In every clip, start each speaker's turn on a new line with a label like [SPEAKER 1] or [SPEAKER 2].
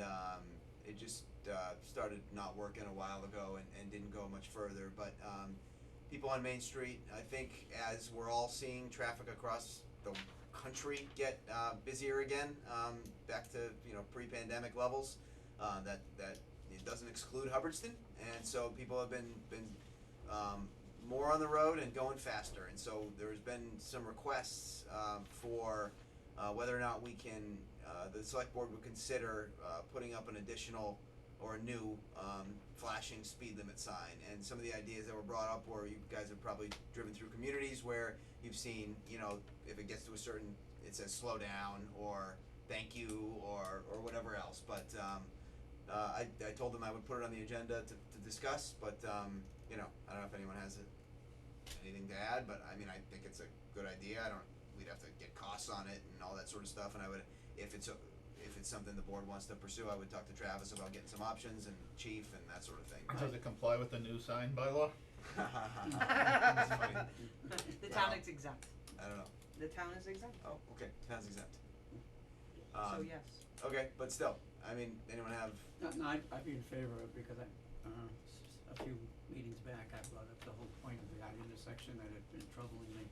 [SPEAKER 1] um, it just uh, started not working a while ago and, and didn't go much further. But um, people on Main Street, I think, as we're all seeing traffic across the country get uh, busier again, um, back to you know pre-pandemic levels, uh, that that it doesn't exclude Hubbardston, and so people have been been um, more on the road and going faster, and so there's been some requests um, for uh, whether or not we can, uh, the select board would consider uh, putting up an additional or a new um, flashing speed limit sign. And some of the ideas that were brought up were you guys have probably driven through communities where you've seen, you know, if it gets to a certain, it says slow down or thank you or, or whatever else. But um, uh, I, I told them I would put it on the agenda to, to discuss, but, um, you know, I don't know if anyone has it anything to add, but I mean, I think it's a good idea, I don't, we'd have to get costs on it and all that sort of stuff, and I would, if it's a, if it's something the board wants to pursue, I would talk to Travis about getting some options and chief and that sort of
[SPEAKER 2] Does
[SPEAKER 1] thing.
[SPEAKER 2] it comply with the new sign bylaw?
[SPEAKER 1] That's funny.
[SPEAKER 3] The town
[SPEAKER 1] Wow.
[SPEAKER 3] is exempt,
[SPEAKER 1] I don't know,
[SPEAKER 3] the town is exempt,
[SPEAKER 1] oh, okay, sounds exempt.
[SPEAKER 3] so
[SPEAKER 1] Um,
[SPEAKER 3] yes.
[SPEAKER 1] okay, but still, I mean, anyone have,
[SPEAKER 4] No, no, I'd, I'd be in favor of, it because I, uh, s- s- a few meetings back, I brought up the whole point of that intersection that had been troubling me.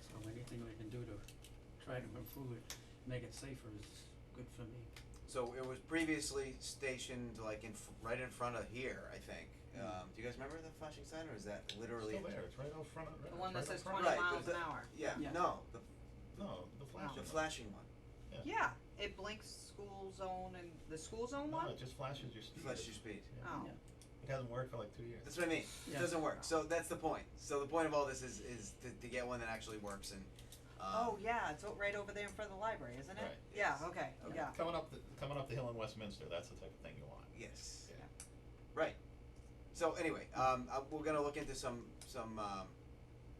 [SPEAKER 4] So anything we can do to try to improve it, make it safer is good for me.
[SPEAKER 1] so it was previously stationed like in, f- right in front of here, I think,
[SPEAKER 4] Hmm.
[SPEAKER 1] um, do you guys remember the flashing sign, or is that literally?
[SPEAKER 2] Still there, it's right out front of, right
[SPEAKER 3] The
[SPEAKER 2] out
[SPEAKER 3] one that
[SPEAKER 2] front of
[SPEAKER 3] says
[SPEAKER 2] front.
[SPEAKER 3] 20
[SPEAKER 1] Right,
[SPEAKER 3] miles
[SPEAKER 1] the-
[SPEAKER 3] an hour.
[SPEAKER 1] Yeah,
[SPEAKER 4] Yeah.
[SPEAKER 1] no, the,
[SPEAKER 2] No, the
[SPEAKER 3] Wow.
[SPEAKER 2] flashing.
[SPEAKER 1] the flashing one.
[SPEAKER 2] Yeah.
[SPEAKER 3] Yeah, it blinks school zone and, the school zone one?
[SPEAKER 2] No, it just flashes your speed.
[SPEAKER 1] Flash your speed.
[SPEAKER 2] Yeah.
[SPEAKER 3] Oh,
[SPEAKER 2] It hasn't worked for like two years.
[SPEAKER 1] That's what I mean. It
[SPEAKER 4] Yeah.
[SPEAKER 1] doesn't work. So that's the point. So the point of all this is is to, to get one that actually works and. Um,
[SPEAKER 3] oh, yeah, it's o- right over there in front of the library, isn't it?
[SPEAKER 2] Right.
[SPEAKER 3] Yeah,
[SPEAKER 1] Yes.
[SPEAKER 3] okay, oh,
[SPEAKER 1] Okay.
[SPEAKER 3] yeah,
[SPEAKER 2] Coming up, the, coming up the hill in Westminster, that's the type of thing you want.
[SPEAKER 1] Yes.
[SPEAKER 2] Yeah.
[SPEAKER 1] Right. So anyway, um, uh, we're gonna look into some some. Um,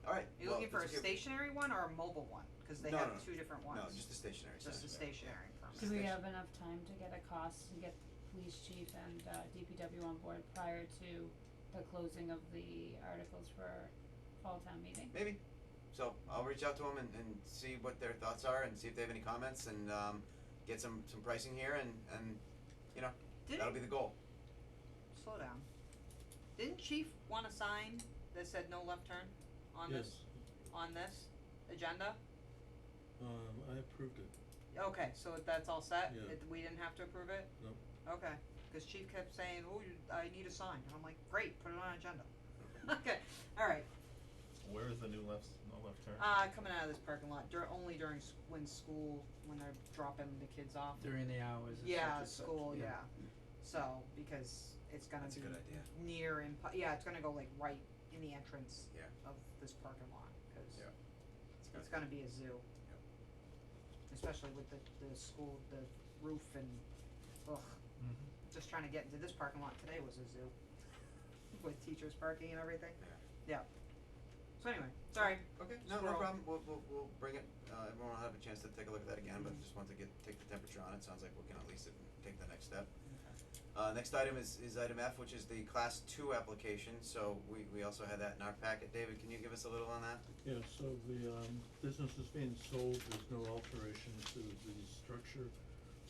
[SPEAKER 1] all right.
[SPEAKER 3] you
[SPEAKER 1] well,
[SPEAKER 3] looking for a
[SPEAKER 1] that's okay.
[SPEAKER 3] stationary one or a mobile one? Cause they
[SPEAKER 1] No,
[SPEAKER 3] have
[SPEAKER 1] no, no.
[SPEAKER 3] two different ones.
[SPEAKER 1] No, just a stationary.
[SPEAKER 3] Just
[SPEAKER 1] sign.
[SPEAKER 3] a stationary permit.
[SPEAKER 1] Yeah.
[SPEAKER 5] Do we have enough time to get a cost and get police chief and uh DPW on board prior to the closing of the articles for fall town meeting?
[SPEAKER 1] Maybe. So I'll reach out to them and, and see what their thoughts are and see if they have any comments and um, get some some pricing here and and you know that'll be
[SPEAKER 3] Didn't,
[SPEAKER 1] the goal.
[SPEAKER 3] slow down. Didn't chief want a sign that said no left turn on this, on this agenda?
[SPEAKER 6] Yes, um, I approved it.
[SPEAKER 3] Okay, so that's all set?
[SPEAKER 6] Yeah.
[SPEAKER 3] It, we didn't have to approve it?
[SPEAKER 6] No.
[SPEAKER 3] Okay, cause chief kept saying, oh, you, I need a sign, and I'm like, great, put it on agenda. Okay, alright,
[SPEAKER 2] Where is the new left, no left turn?
[SPEAKER 3] uh, coming out of this parking lot, dur- only during, s- when school, when they're dropping the kids off.
[SPEAKER 4] During the hours and such
[SPEAKER 3] Yeah,
[SPEAKER 4] and such,
[SPEAKER 3] school,
[SPEAKER 4] yeah.
[SPEAKER 3] yeah, so, because it's gonna
[SPEAKER 1] That's a
[SPEAKER 3] be
[SPEAKER 1] good idea.
[SPEAKER 3] near and, pu- yeah, it's gonna go like right in the entrance
[SPEAKER 1] Yeah.
[SPEAKER 3] of this parking lot, cause
[SPEAKER 1] Yeah.
[SPEAKER 3] it's gonna be a zoo. Especially with the, the school, the roof and, ugh.
[SPEAKER 2] Mhm.
[SPEAKER 1] Mm-hmm.
[SPEAKER 3] just trying to get into this parking lot today was a zoo. With teachers parking and everything. Yeah. So anyway, sorry.
[SPEAKER 1] Okay, no, no
[SPEAKER 3] Squirrel.
[SPEAKER 1] problem, we'll, we'll, we'll bring it, uh, everyone will have a chance to take a look at that again, but just want to get, take the temperature on it, sounds like we can at least take the next step. Uh, next item is, is item F, which is the class two application, so we, we also had that in our packet, David, can you give us a little on that?
[SPEAKER 6] Yeah, so the, um, business is being sold, there's no alteration to the structure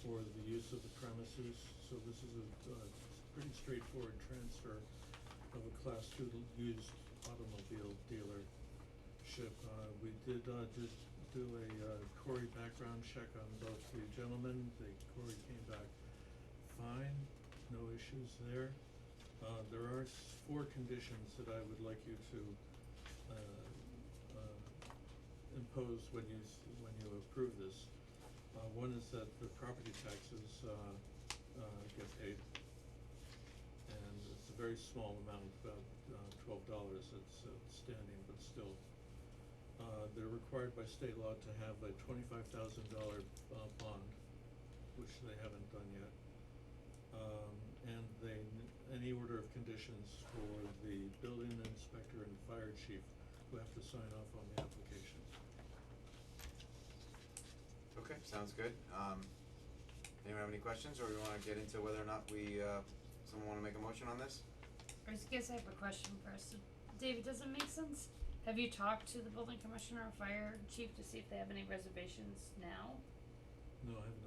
[SPEAKER 6] or the use of the premises, so this is a, uh, pretty straightforward transfer of a class two l- used automobile dealership. Uh, we did, uh, just do a, uh, Cory background check on both the gentlemen, the Cory came back fine, no issues there. Uh, there are s- four conditions that I would like you to, uh, uh, impose when you, s- when you approve this. Uh, one is that the property taxes, uh, uh, get paid. And it's a very small amount, about, uh, twelve dollars, it's outstanding, but still. Uh, they're required by state law to have a twenty-five thousand dollar, uh, bond, which they haven't done yet. Um, and they, n- any order of conditions for the building inspector and fire chief who have to sign off on the applications.
[SPEAKER 1] Okay, sounds good, um, anyone have any questions, or we wanna get into whether or not we, uh, someone wanna make a motion on this?
[SPEAKER 5] I just guess I have a question first. David, does it make sense? Have you talked to the building commissioner and fire chief to see if they have any reservations now?
[SPEAKER 6] No, I have